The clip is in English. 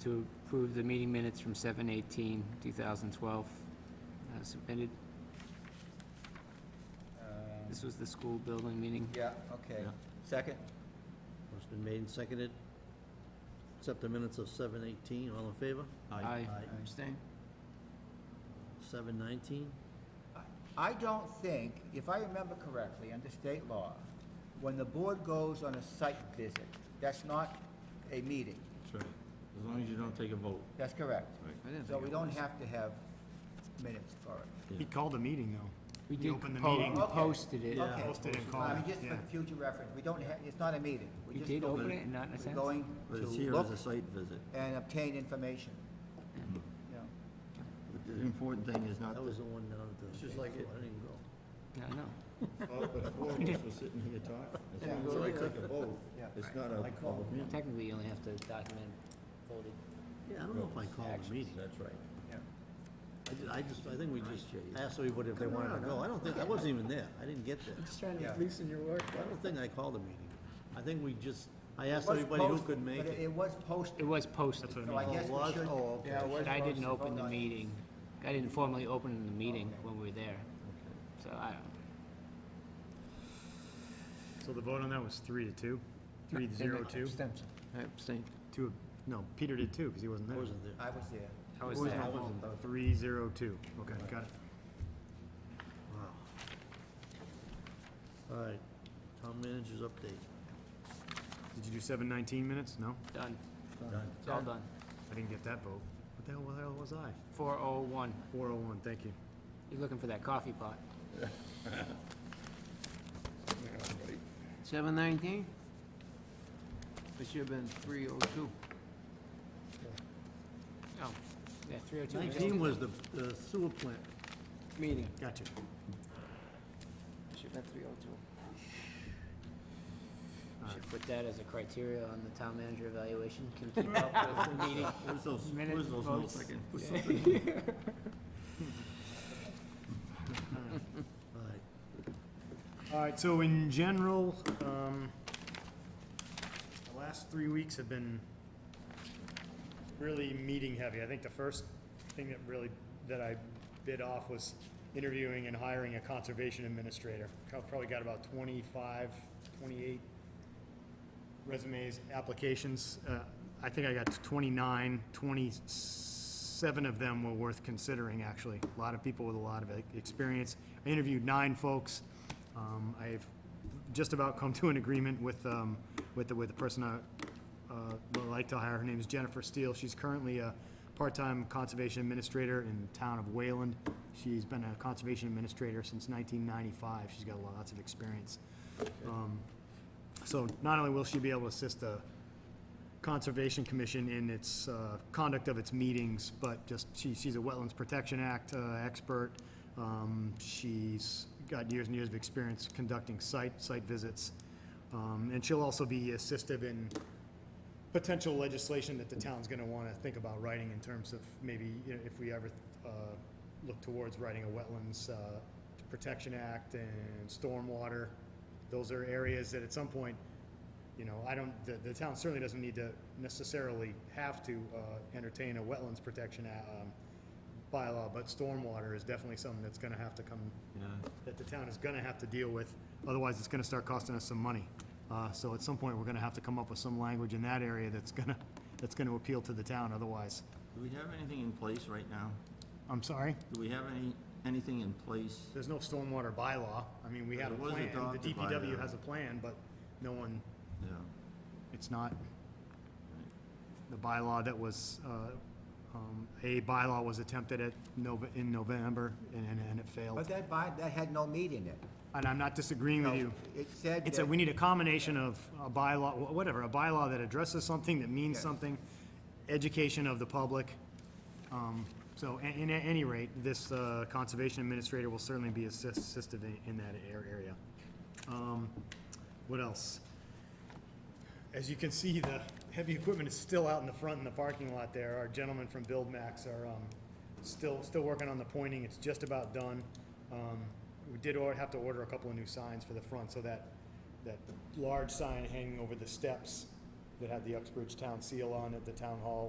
to approve the meeting minutes from 7:18, 2012, as uh, submitted. Um, This was the school building meeting. Yeah, okay. Yeah. Second? Motion's been made and seconded. Accept the minutes of seven eighteen, all in favor? Aye. Abstain. Seven nineteen? I don't think, if I remember correctly, under state law, when the board goes on a site visit, that's not a meeting. That's right. As long as you don't take a vote. That's correct. Right. So we don't have to have minutes for it. He called a meeting, though. We We did opened the po- meeting. we posted it. Okay. Posted and I mean, called, just for yeah. future reference, we don't have, it's not a meeting. We're You just did going- open it and not in a we're sense? going But to it's here as a look site visit. and obtain information. Mm-hmm. Yeah. But The important thing is not, That the- was the one down at the. It's just like it. I didn't go. Yeah, I know. Oh, but four of us were sitting here talking. As long as you don't take a vote, Yeah. it's not a public meeting. Technically, you only have to document voted. Yeah, I don't know if I called a meeting. That's right. Yeah. I ju- I just, I think we just asked everybody if they wanted to go. I don't think, I wasn't even there. I didn't get there. Just trying Yeah. loosen your work. I don't think I called a meeting. I think we just, I asked Was everybody who post- could make but it. It was It posted, was posted, so I mean. guess Oh, we was? should. Oh, okay. yeah, it was but I didn't posted. open the Hold on. meeting. I didn't formally open the meeting Okay. when we were there. So I don't. So the vote on that was three to two, three to zero two. I abstained. Two, no, Peter did two, because he wasn't I there. wasn't there. I was there. I was Wasn't there. at home. Three zero two, okay, got it. Wow. All right, town manager's update. Did you do seven nineteen minutes? No? Done. Done. It's all done. I didn't get that vote. What the hell, where the hell was I? 401. Four oh one, thank you. You're looking for that coffee pot. Seven nineteen? It should have been three oh two. Oh, yeah, 302. Nineteen was the the sewer plant. Meeting. Got you. It should have been three oh two. Should put that as a criteria on the town manager evaluation, can keep up with the meeting. Where's those, Minute where's those notes votes. I can- All right, All right, so in general, um, the last three weeks have been really meeting heavy. I think the first thing that really, that I bid off was interviewing and hiring a conservation administrator. Co- Probably got about 25, 28 resumes, applications. Uh, I think I got 29, 27 of them were worth considering, actually. A lot of people with a lot of e- experience. I interviewed nine folks. Um, I've just about come to an agreement with, um, with the, with the person I uh, would like to hire. Her name is Jennifer Steele. She's currently a part-time conservation administrator in the town of Wayland. She's been a conservation administrator since 1995. She's got lots of experience. Um, so not only will she be able to assist the Conservation Commission in its uh, conduct of its meetings, but just, she, she's a Wetlands Protection Act uh, expert. Um, She's got years and years of experience conducting site, site visits. Um, And she'll also be assistive in potential legislation that the town's gonna wanna think about writing in terms of maybe, you know, if we ever, uh, look towards writing a wetlands, uh, protection act and stormwater. Those are areas that at some point, you know, I don't, the, the town certainly doesn't need to necessarily have to, uh, entertain a wetlands protection, a- um, bylaw, but stormwater is definitely something that's gonna have to come Yeah. that the town is gonna have to deal with, otherwise it's gonna start costing us some money. Uh, so at some point, we're gonna have to come up with some language in that area that's gonna, that's gonna appeal to the town otherwise. Do we have anything in place right now? I'm sorry, Do we have any, anything in place? there's no stormwater bylaw, I mean, we have a It was plan, adopted the by DPW the- has a plan, but no one, Yeah. it's not the bylaw that was, uh, um, a bylaw was attempted at Nov- in November and, and- and it But failed. that by, that had no meat in it. And I'm not disagreeing with No, you. It said It's a, that- we need a combination of a bylaw, wh- whatever, a bylaw that addresses something, that means Yes. something, education of the public. Um, So, a- and at any rate, this uh, conservation administrator will certainly be assist- assisted in- in that ar- area. Um, What else? As you can see, the heavy equipment is still out in the front in the parking lot there. Our gentlemen from Build Max are um, still, still working on the pointing. It's just about done. Um, We did or- have to order a couple of new signs for the front, so that, that large sign hanging over the steps that had the Uxbridge Town seal on it, the town hall